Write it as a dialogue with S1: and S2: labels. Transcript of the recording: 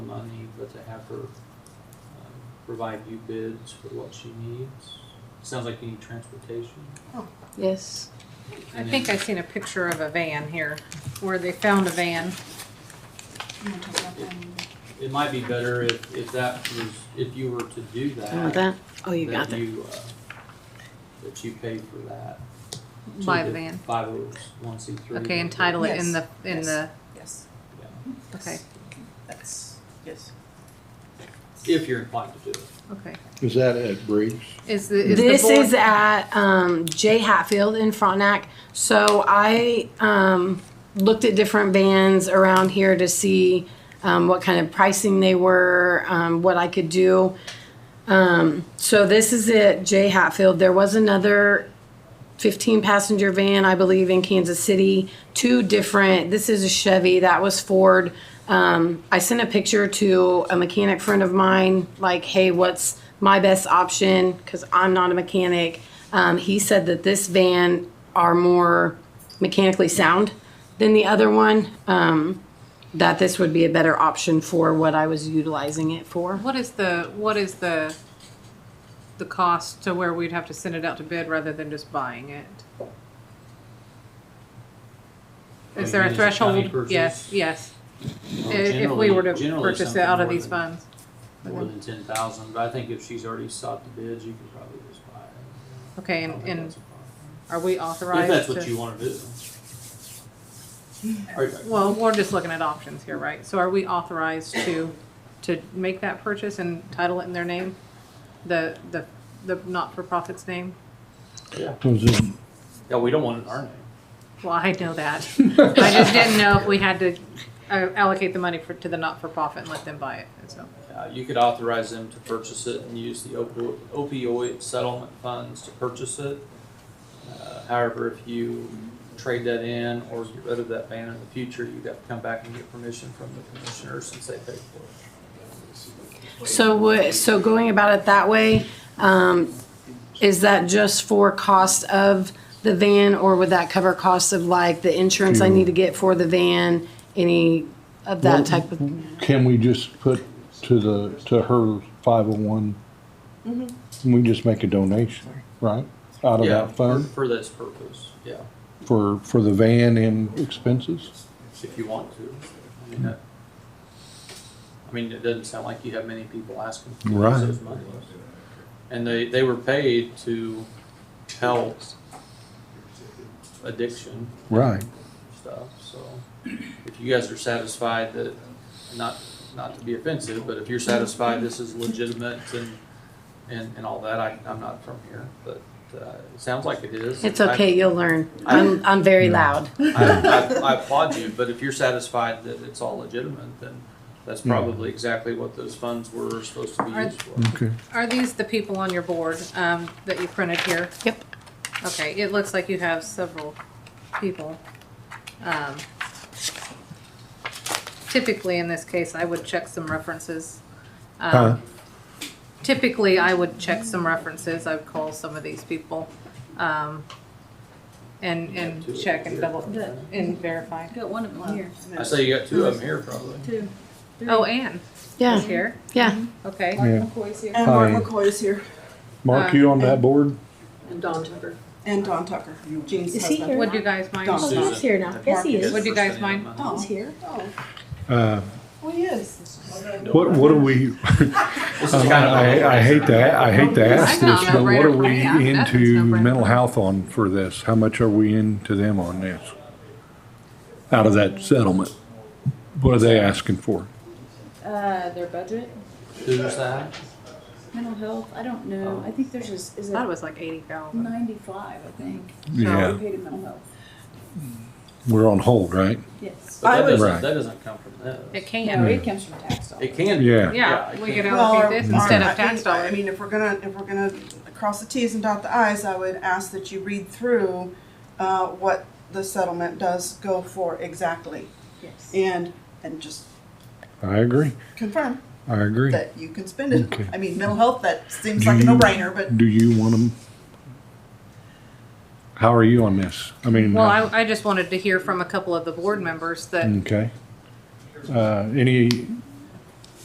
S1: money, but to have her um, provide you bids for what she needs. Sounds like you need transportation.
S2: Yes.
S3: I
S1: And
S3: think
S1: then
S3: I seen a picture of a van here, where they found a van.
S4: I'm gonna talk about that in the-
S1: It might be better if, if that was, if you were to do
S2: You
S1: that.
S2: want that? Oh, you
S1: That
S2: got that.
S1: you, uh, that you pay for that.
S3: My van.
S1: Five oh one C three.
S3: Okay, and title it in the, in
S4: Yes.
S3: the,
S4: Yes,
S3: okay,
S4: that's, yes.
S1: If you're inclined to do it.
S3: okay.
S5: Is that at Briggs?
S3: Is the, is the board?
S2: This is at um, J Hatfield in Frontenac. So I um, looked at different bands around here to see um, what kind of pricing they were, um, what I could do. Um, so this is at J Hatfield. There was another 15 passenger van, I believe, in Kansas City. Two different, this is a Chevy, that was Ford. Um, I sent a picture to a mechanic friend of mine, like, hey, what's my best option? Because I'm not a mechanic. Um, he said that this van are more mechanically sound than the other one, um, that this would be a better option for what I was utilizing it for.
S3: What is the, what is the, the cost to where we'd have to send it out to bid rather than just buying it? Is there
S1: I
S3: a
S1: mean, is it county
S3: threshold? Yes,
S1: purchase?
S3: yes.
S1: Well,
S3: If if we were to
S1: generally- generally
S3: purchase it
S1: something
S3: out of
S1: more
S3: these
S1: than-
S3: funds.
S1: More than ten thousand, but I think if she's already sought the bids, you can probably just buy it.
S3: Okay,
S1: I don't
S3: and,
S1: think
S3: and
S1: that's a problem.
S3: are we authorized
S1: If
S3: to?
S1: that's what you wanna do. Are you-
S3: Well, we're just looking at options here, right? So are we authorized to, to make that purchase and title it in their name? The, the, the not-for-profit's name?
S5: Was it,
S1: Yeah, we don't want it in our name.
S3: Well, I know that. I just didn't know if we had to uh, allocate the money for, to the not-for-profit and let them buy it, and so.
S1: Uh, you could authorize them to purchase it and use the opo- opioid settlement funds to purchase it. Uh, However, if you trade that in or get rid of that ban in the future, you'd have to come back and get permission from the commissioners since they paid for it.
S2: So what, so going about it that way, um, is that just for cost of the van or would that cover costs of like the insurance I need to get for the van, any of that type
S5: mm-hmm.
S2: of?
S5: can we just put to the, to her five oh one?
S2: Mm-hmm.
S5: Can we just make a donation, right? Out of
S1: Yeah,
S5: that
S1: for,
S5: fund
S1: for this purpose, yeah,
S5: for, for the van and expenses?
S1: if you want to. I mean, that- I mean, it doesn't sound like you have many people asking for
S5: Right.
S1: those monies. And they, they were paid to help addiction.
S5: Right.
S1: stuff, so if you guys are satisfied that, not, not to be offensive, but if you're satisfied this is legitimate and, and, and all that, I, I'm not from here, but, uh, it sounds like it is.
S2: It's okay, you'll learn. I'm, I'm very loud.
S1: I, I I applaud you, but if you're satisfied that it's all legitimate, then that's
S5: Hmm.
S1: probably exactly what those funds were supposed to be
S3: Are-
S1: used for.
S5: Okay.
S3: Are these the people on your board, um, that you printed here?
S2: Yep.
S3: Okay, it looks like you have several people. Um, Typically, in this case, I would check some references. Um,
S5: Huh?
S3: Typically, I would check some references, I would call some of these people, um, and, and check and double, and verify.
S4: Got one of them here.
S1: I say you got two of them here probably.
S4: Two.
S3: Oh, Anne is
S2: Yeah,
S3: here,
S2: yeah.
S3: okay.
S5: Yeah.
S4: McCoy's here.
S6: And Mark
S5: Hi.
S6: McCoy's here,
S5: Mark, you on
S2: uh,
S5: that board?
S7: And Don Tucker.
S6: and Don Tucker, Gene's
S2: Is he
S6: husband.
S2: here?
S3: Would you guys mind?
S6: Don't.
S1: Susan.
S2: here now. Yes, he
S1: Mark,
S3: Would
S1: first
S3: you guys
S1: name.
S3: mind?
S6: Oh,
S2: here.
S5: Uh,
S6: well, he is.
S5: what, what do we,
S3: Oh.
S1: This is
S5: Um,
S1: kind of.
S5: I, I hate to, I hate to ask
S3: I'm not
S5: this, but what
S3: a
S5: are we
S3: brainer. Yeah, that's
S5: into
S3: no brainer.
S5: mental health on for this? How much are we into them on this? Out of that settlement? What are they asking for?
S7: Uh, their budget,
S1: Who's that?
S7: mental health, I don't know, I think there's just, is
S3: I thought it
S7: it
S3: was like eighty thousand.
S7: ninety-five, I think.
S5: Yeah,
S7: We paid in mental health,
S5: we're on hold, right?
S7: yes.
S1: But
S6: I
S1: that
S6: would-
S1: doesn't,
S5: Right.
S1: that doesn't come from this.
S3: It can,
S7: No, it comes from tax dollars.
S1: It can.
S5: Yeah.
S3: yeah,
S1: it
S3: we
S1: can.
S3: could
S6: Well, or-
S3: allocate this instead
S5: or-
S3: of tax
S6: I mean- I
S3: dollars.
S6: mean, if we're gonna, if we're gonna cross the Ts and dot the Is, I would ask that you read through, uh, what the settlement does go for exactly.
S7: Yes.
S6: And, and just
S5: I agree,
S6: confirm
S5: I agree.
S6: that you can spend it.
S5: Okay.
S6: I mean, mental health, that seems
S5: Do
S6: like a
S5: you-
S6: no-brainer, but
S5: Do you want them? How are you on this? I mean, uh, Mm.
S3: Well, I, I just wanted to hear from a couple of the board members that,
S5: okay. Uh, any